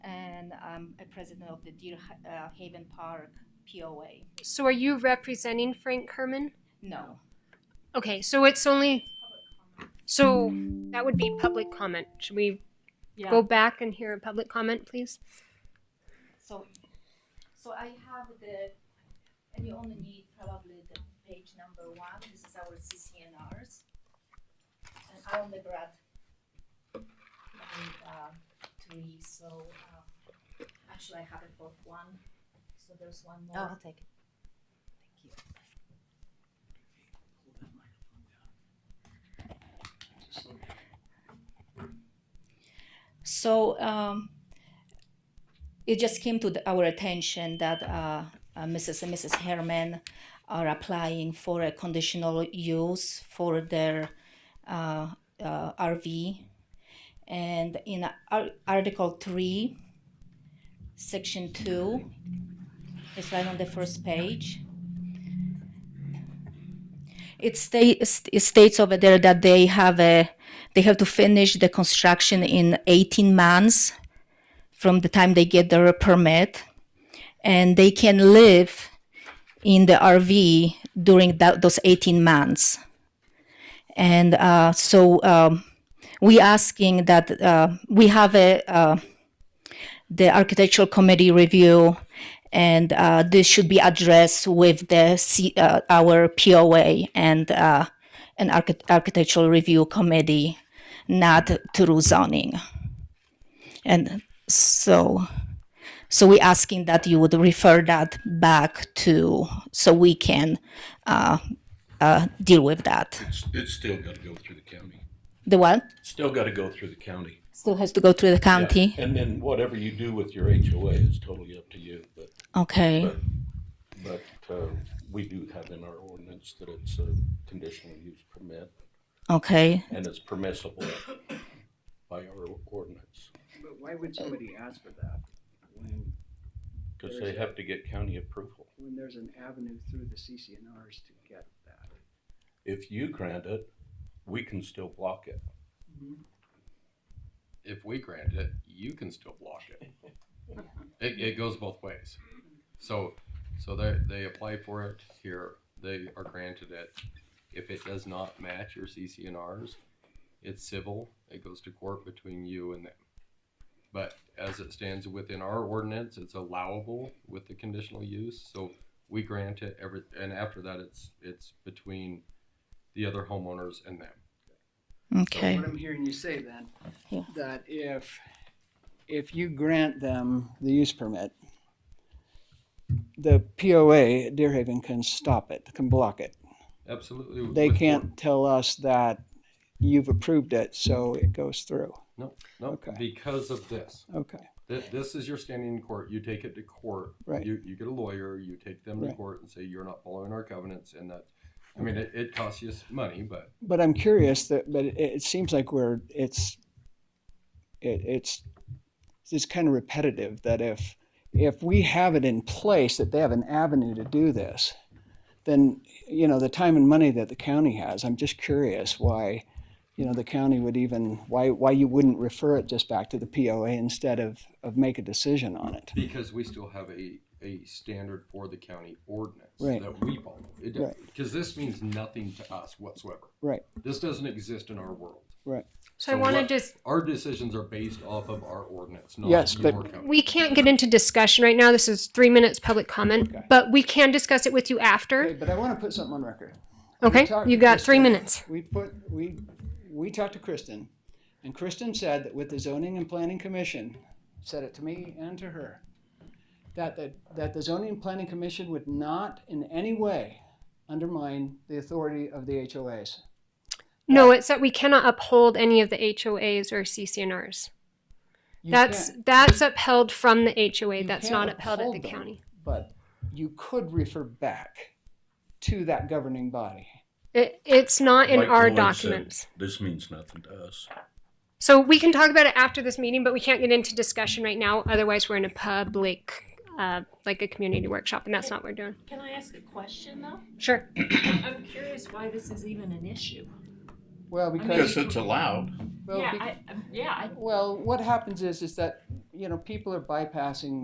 um, a president of the Deer Ha- uh, Haven Park POA. So are you representing Frank Kerman? No, Okay, so it's only. So that would be public comment. Should we yeah. go back and hear a public comment, please? So, so I have the, and you only need probably the page number one, this is our CCNRs. And I only brought, um, uh, three, so, um, actually I have a fourth one, so there's one more. Oh, I'll take it. Thank you. So um, it just came to the, our attention that uh, uh, Mrs. and Mrs. Herman are applying for a conditional use for their uh, uh, RV. And in Ar- Article 3, Section 2, it's right on the first page. It, sta- it states over there that they have a they have to finish the construction in 18 months from the time they get their permit and they can live in the rv during that, those 18 months and uh, so um, we asking that uh, we have a uh, the architectural committee review and uh, this should be addressed with the C, uh, our poa and uh, an archi- architectural review committee, not through zoning. And so, so we asking that you would refer that back to, so we can uh, uh, deal with that. It's, it's still gotta go through the county. The what? Still gotta go through the county. Still has to go through the Yeah. county? And then whatever you do with your HOA is totally up to you, but, Okay, but, uh, we do have in our ordinance that it's a conditional use permit okay. and it's permissible by our ordinance. But why would somebody ask for that when, Cause they have to get county approval. when there's an avenue through the CCNRs to get that? If you grant it, we can still block it. if we grant it, you can still block it. It, it goes both ways. So, so they, they apply for it here, they are granted it. If it does not match your CCNRs, it's civil, it goes to court between you and them. But as it stands within our ordinance, it's allowable with the conditional use, so we grant it every, and after that, it's, it's between the other homeowners and them. So Okay, What I'm hearing you say then, Yeah. that if, if you grant them the use permit, the POA at Deerhaven can stop it, can block it. Absolutely. They with- can't tell us that you've approved it, so it goes through. No, no, Okay. because of this. Okay, Th- This is your standing in court. You take it to court. Right. You, you get a lawyer, you take them to Right. court and say, you're not following our covenants and that, I mean, it, it costs you s- money, but but I'm curious that, but it, it seems like we're, it's, it, it's, it's kind of repetitive that if, if we have it in place that they have an avenue to do this, then, you know, the time and money that the county has, I'm just curious why, you know, the county would even, why, why you wouldn't refer it just back to the POA instead of, of make a decision on it. because we still have a, a standard for the county ordinance Right. that we follow. It, Right. Cause this means nothing to us whatsoever. Right, This doesn't exist in our world. right. So, So I want to what- just. Our decisions are based off of our ordinance, not Yes, your but- covenant. We can't get into discussion right now. This is three minutes public comment, but we can discuss it with you after. But I want to put something on record. Okay, talked you to got three Kristen. minutes. We put, we, we talked to Kristen, and Kristen said that with the zoning and planning commission, said it to me and to her, that the, that the zoning and planning commission would not in any way undermine the authority of the HOAs. No, it's that we cannot uphold any of the HOAs or CCNRs. You That's can't- that's upheld from the HOA. you That's can't not upheld at the uphold them, county. But you could refer back to that governing body. It, it's not in Like our Lloyd said, documents. This means nothing to us. So we can talk about it after this meeting, but we can't get into discussion right now. Otherwise, we're in a public, uh, like a community workshop, and that's not what we're doing. Can I ask a question though? Sure. I'm curious why this is even an issue. Well, because, Because it's allowed. well, yeah, bec- I, um, yeah, I well, what happens is, is that, you know, people are bypassing